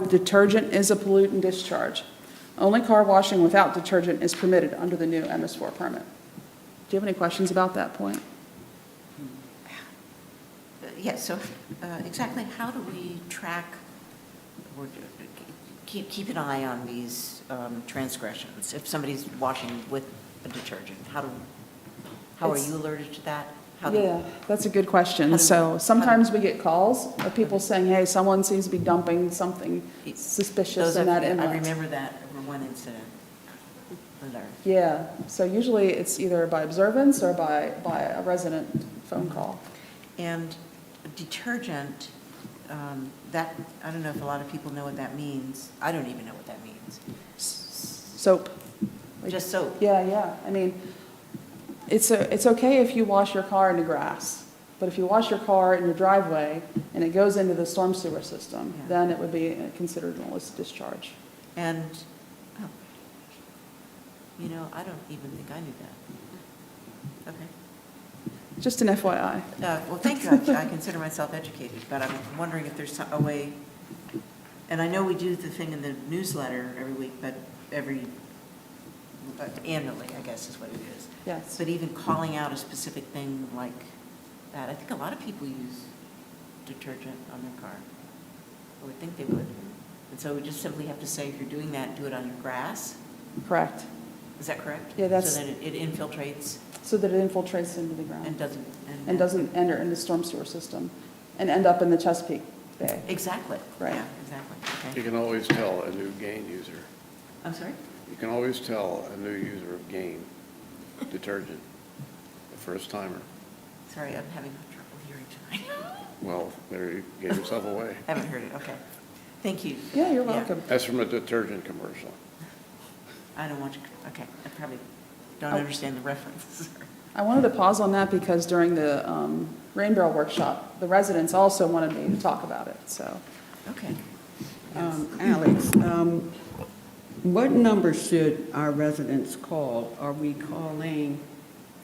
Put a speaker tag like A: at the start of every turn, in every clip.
A: with detergent is a pollutant discharge. Only car washing without detergent is permitted under the new MS4 permit. Do you have any questions about that point?
B: Uh, Yes, so uh, exactly how do we track or keep, keep an eye on these um, transgressions? If somebody's washing with a detergent, how do, how are
A: It's-
B: you alerted to that? How do-
A: Yeah, that's a good
B: How
A: question.
B: do-
A: So sometimes we get calls of people saying, hey, someone seems to be dumping something suspicious
B: Those
A: in
B: of-
A: that
B: I
A: inlet.
B: remember that, over one incident. Alert.
A: Yeah, so usually it's either by observance or by, by a resident phone call.
B: And detergent, um, that, I don't know if a lot of people know what that means. I don't even know what that means.
A: Soap. Like-
B: Just soap.
A: Yeah, yeah, I mean, it's, a- it's okay if you wash your car in the grass, but if you wash your car in your driveway and it goes into the storm sewer system,
B: Yeah.
A: then it would be considered an illicit discharge.
B: And, oh, you know, I don't even think I knew that. Okay.
A: Just an FYI.
B: Uh, Well, thank you, I I consider myself educated, but I'm wondering if there's some- a way, and I know we do the thing in the newsletter every week, but every, uh, annually, I guess is what it is.
A: Yes.
B: But even calling out a specific thing like that, I think a lot of people use detergent on their car. I would think they would. And so we just simply have to say, if you're doing that, do it on your grass.
A: Correct.
B: Is that correct?
A: Yeah, that's-
B: So then it it infiltrates
A: So that it infiltrates into the
B: and
A: ground
B: doesn't.
A: and doesn't enter into storm sewer system and end up in the Chesapeake Bay.
B: Exactly.
A: Right.
B: Yeah, Exactly.
C: You
B: Okay.
C: can always tell a new gain user.
B: I'm sorry?
C: You can always tell a new user of gain detergent, the first timer.
B: Sorry, I'm having trouble hearing tonight.
C: Well, there you gave yourself away.
B: Haven't heard it, okay. Thank you.
A: Yeah, you're welcome.
C: That's from a detergent commercial.
B: I don't want to, okay, I probably don't
A: Oh.
B: understand the reference.
A: I wanted to pause on that because during the um, rain barrel workshop, the residents also wanted me to talk about it, so.
B: Okay.
D: Um, Alex, um, what number should our residents call? Are we calling,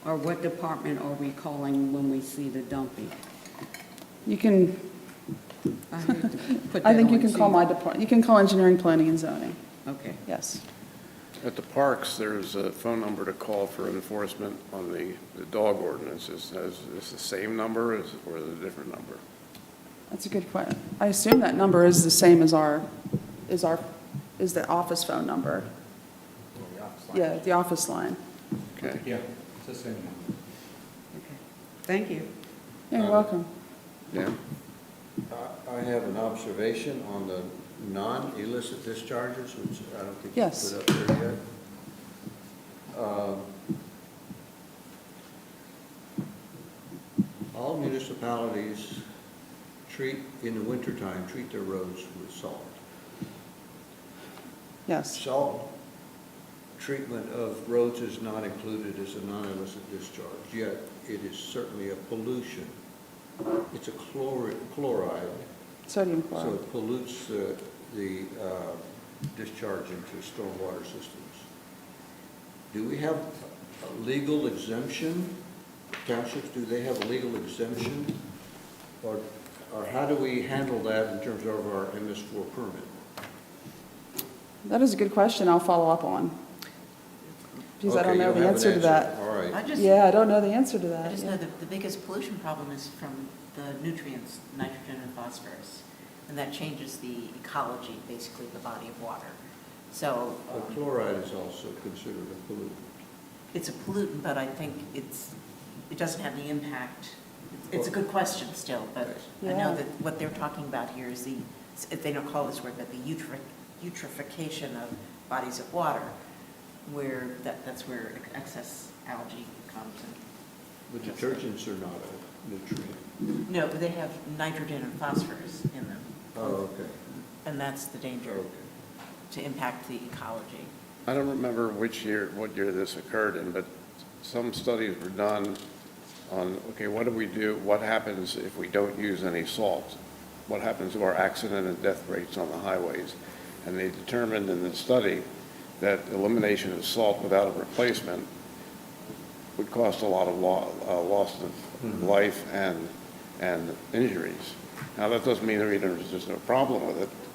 D: or what department are we calling when we see the dumping?
A: You can,
D: I hate to put
A: I
D: that
A: think you
D: on
A: can call
D: too.
A: my department, you can call engineering, planning, and zoning,
D: Okay,
A: yes.
C: At the parks, there's a phone number to call for enforcement on the, the dog ordinances. Is this the same number is- or is it a different number?
A: That's a good question. I assume that number is the same as our, is our, is the office phone number. Yeah, the office line.
C: Okay?
E: Yeah, it's the same one.
D: okay. Thank you.
A: You're
E: Uh,
A: welcome.
C: Dan?
F: I- I have an observation on the non-illicit discharges, which I don't think you
A: Yes.
F: put up there yet. Um, All municipalities treat, in the wintertime, treat their roads with salt.
A: Yes,
F: Salt treatment of roads is not included as a non-illicit discharge, yet it is certainly a pollution. It's a chlor- chloride
A: sodium
F: so
A: chloride.
F: it pollutes the, the uh, discharge into stormwater systems. Do we have a legal exemption? Townships, do they have a legal exemption? Or, or how do we handle that in terms of our MS4 permit?
A: That is a good question I'll follow up on. Because I
F: Okay,
A: don't
F: you
A: know the
F: have an
A: answer to that.
F: All
B: I
F: right.
B: just.
A: Yeah, I don't know the answer to
B: I
A: that.
B: just
A: yeah.
B: know that the biggest pollution problem is from the nutrients, nitrogen and phosphorus, and that changes the ecology, basically, of the body of water. So
F: But
B: um,
F: chloride is also considered a pollutant.
B: it's a pollutant, but I think it's, it doesn't have the impact. It's a good question still, but I
A: Yeah.
B: know that what they're talking about here is the, if they don't call this word, but the eutri- eutrophication of bodies of water, where, that, that's where excess algae comes in.
F: But detergents are not a nutrient.
B: No, but they have nitrogen and phosphorus in them.
F: Oh, okay,
B: And that's the danger,
F: okay.
B: to impact the ecology.
C: I don't remember which year, what year this occurred in, but some studies were done on, okay, what do we do, what happens if we don't use any salt? What happens to our accident and death rates on the highways? And they determined in the study that elimination of salt without a replacement would cost a lot of lo- uh, loss of life and, and injuries. Now, that doesn't mean there either is just no problem with it,